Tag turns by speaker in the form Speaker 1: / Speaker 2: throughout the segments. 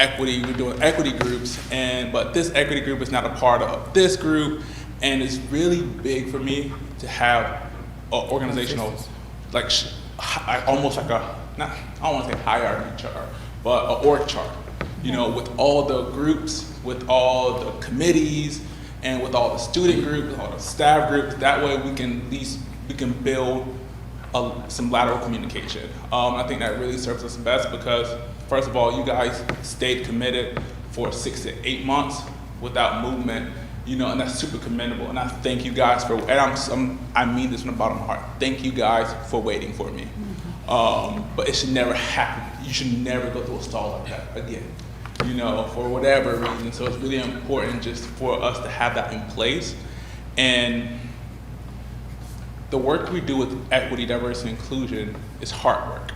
Speaker 1: equity, we're doing equity groups, and but this equity group is not a part of this group, and it's really big for me to have a organizational, like sh- hi- almost like a not I don't want to say hierarchy chart, but a org chart. You know, with all the groups, with all the committees, and with all the student groups, all the staff groups. That way, we can at least we can build a, some lateral communication. Um, I think that really serves us best because, first of all, you guys stayed committed for six to eight months without movement, you know, and that's super commendable. And I thank you guys for, and I'm, some, I mean this from the bottom of my heart. Thank you guys for waiting for me. Um, but it should never happen. You should never go through a stall like that again you know, for whatever reason. So it's really important just for us to have that in place. And the work we do with equity, diversity, and inclusion is hard work.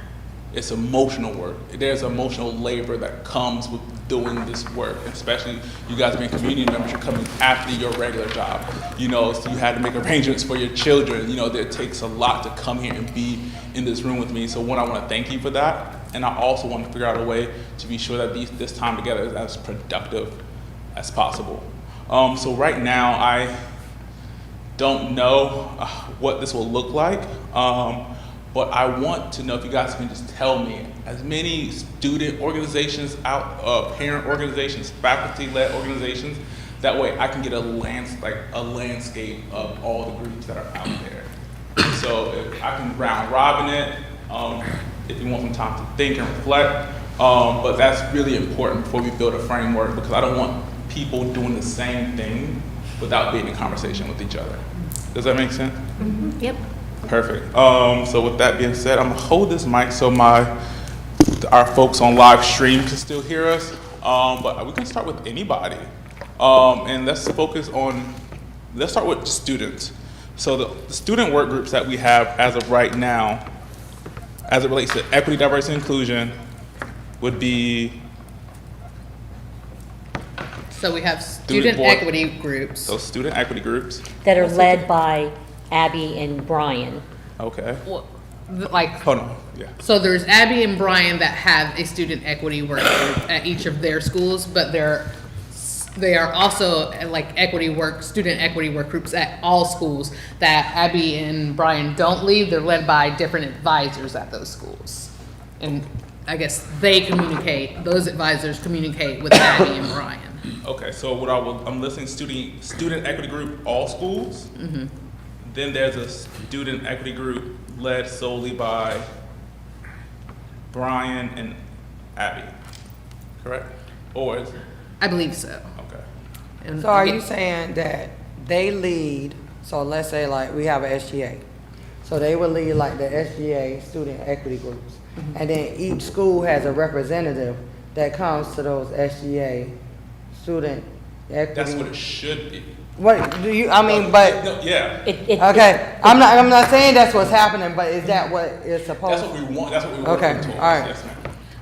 Speaker 1: It's emotional work. There's emotional labor that comes with doing this work, especially you guys being community members, you're coming after your regular job. You know, so you had to make arrangements for your children. You know, it takes a lot to come here and be in this room with me. So one, I want to thank you for that. And I also want to figure out a way to be sure that these, this time together is as productive as possible. Um, so right now, I don't know uh, what this will look like, um, but I want to know if you guys can just tell me as many student organizations out, uh, parent organizations, faculty-led organizations. That way, I can get a lands like a landscape of all the groups that are out there. so if I can round robin it. Um, if you want some time to think and reflect, um, but that's really important before we build a framework because I don't want people doing the same thing without being in conversation with each other. Does that make sense?
Speaker 2: Yep.
Speaker 1: Perfect. Um, so with that being said, I'm gonna hold this mic so my our folks on live stream can still hear us. Um, but we can start with anybody, um, and let's focus on. Let's start with students. So the, the student work groups that we have as of right now, as it relates to equity, diversity, and inclusion, would be
Speaker 3: So we have student
Speaker 1: board-
Speaker 3: equity groups.
Speaker 1: those student equity groups.
Speaker 4: that are led by Abby and Brian.
Speaker 1: Okay.
Speaker 3: Well, th- Like,
Speaker 1: Hold on. Yeah.
Speaker 3: so there's Abby and Brian that have a student equity work group at each of their schools, but they're, s- they are also uh, like equity work, student equity work groups at all schools that Abby and Brian don't lead. They're led by different advisors at those schools. And I guess they communicate, those advisors communicate with Abby and Brian.
Speaker 1: Okay, so what I will, I'm listing student, student equity group, all schools. Then there's a student equity group led solely by Brian and Abby, correct? Or is,
Speaker 3: I believe so.
Speaker 1: okay,
Speaker 3: And
Speaker 5: So are
Speaker 3: again-
Speaker 5: you saying that they lead, so let's say like we have a SGA. So they would lead like the SGA student equity groups.
Speaker 4: Mm-hmm.
Speaker 5: And then each school has a representative that comes to those SGA student equity.
Speaker 1: that's what it should be.
Speaker 5: What, do you, I mean, but,
Speaker 1: No, yeah,
Speaker 4: It,
Speaker 3: Uh,
Speaker 4: it,
Speaker 5: okay, I'm not, I'm not saying that's what's happening, but is that what
Speaker 1: that's
Speaker 5: it's supposed?
Speaker 1: what we want, that's what we work
Speaker 5: Okay,
Speaker 1: towards,
Speaker 5: all right.
Speaker 1: yes, ma'am.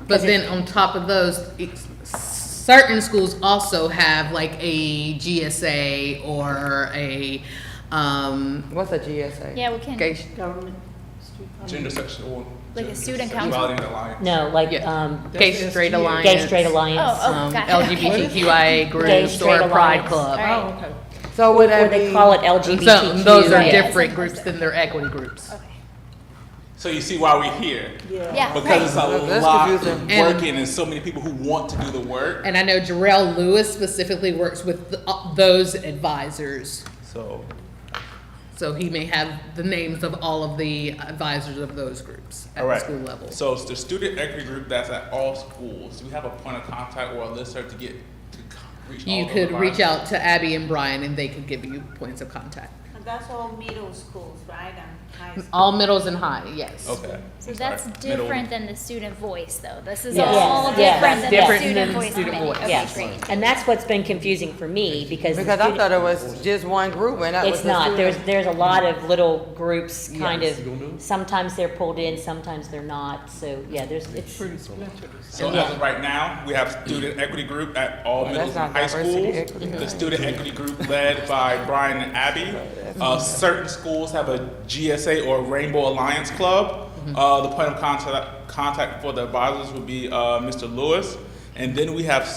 Speaker 3: But then on top of those, it's- certain schools also have like a GSA or a, um,
Speaker 5: What's a GSA?
Speaker 2: Yeah, we can.
Speaker 3: gauge-
Speaker 1: Gender sexual.
Speaker 2: Like a
Speaker 1: gender
Speaker 2: student
Speaker 1: sexuality
Speaker 2: council?
Speaker 1: and alliance.
Speaker 4: no, like
Speaker 3: yeah,
Speaker 4: um,
Speaker 3: Gay Straight Alliance.
Speaker 4: Gay Straight Alliance.
Speaker 2: Oh,
Speaker 3: um,
Speaker 2: gotcha.
Speaker 3: LGBTQIA
Speaker 4: Gay
Speaker 3: groups
Speaker 4: Straight
Speaker 3: or Pride
Speaker 4: Alliance.
Speaker 3: Club.
Speaker 2: All right.
Speaker 5: So would
Speaker 4: Or
Speaker 5: that be?
Speaker 4: they call it
Speaker 3: And So
Speaker 4: LGBTQ.
Speaker 3: those are
Speaker 2: Yeah.
Speaker 3: different groups than their equity groups.
Speaker 2: Okay.
Speaker 1: So you see why we're here?
Speaker 2: Yeah.
Speaker 1: Because it's
Speaker 2: right.
Speaker 1: a
Speaker 5: That's
Speaker 1: lot
Speaker 5: confusing.
Speaker 3: And-
Speaker 1: working and so many people who want to do the work,
Speaker 3: And I know Jarrell Lewis specifically works with th- uh, those advisors.
Speaker 1: so.
Speaker 3: So he may have the names of all of the advisors of those groups at
Speaker 1: All
Speaker 3: the
Speaker 1: right.
Speaker 3: school level.
Speaker 1: So it's the student equity group that's at all schools. Do we have a point of contact or a listserv to get to c- reach all
Speaker 3: You
Speaker 1: those
Speaker 3: could reach
Speaker 1: environments?
Speaker 3: out to Abby and Brian and they could give you points of contact.
Speaker 6: And that's all middle schools, right, and high schools?
Speaker 3: All middles and high, yes.
Speaker 1: Okay.
Speaker 2: So that's
Speaker 1: Alright, middle.
Speaker 2: different than the student voice, though. This is
Speaker 4: Yes.
Speaker 2: all
Speaker 4: Yes.
Speaker 2: different than the
Speaker 4: Different
Speaker 2: student
Speaker 3: than
Speaker 2: voice
Speaker 3: student
Speaker 2: committee.
Speaker 3: voice.
Speaker 2: Okay,
Speaker 4: Yes,
Speaker 2: great.
Speaker 4: and that's what's been confusing for me because the
Speaker 5: Because I
Speaker 4: student-
Speaker 5: thought it was just one group and that was
Speaker 4: It's
Speaker 5: the
Speaker 4: not. There's,
Speaker 5: student.
Speaker 4: there's a lot of little groups, kind of, sometimes they're pulled in, sometimes they're not, so, yeah, there's, it's,
Speaker 1: So as of right now, we have student equity group at all
Speaker 5: Well,
Speaker 1: middle
Speaker 5: that's
Speaker 1: and
Speaker 5: not
Speaker 1: high
Speaker 5: diversity,
Speaker 1: schools.
Speaker 5: equity,
Speaker 1: The student equity group led by Brian and Abby. Uh, certain schools have a GSA or Rainbow Alliance
Speaker 3: Mm-hmm.
Speaker 1: Club. Uh, the point of contact, contact for the advisors would be uh, Mr. Lewis. And then we have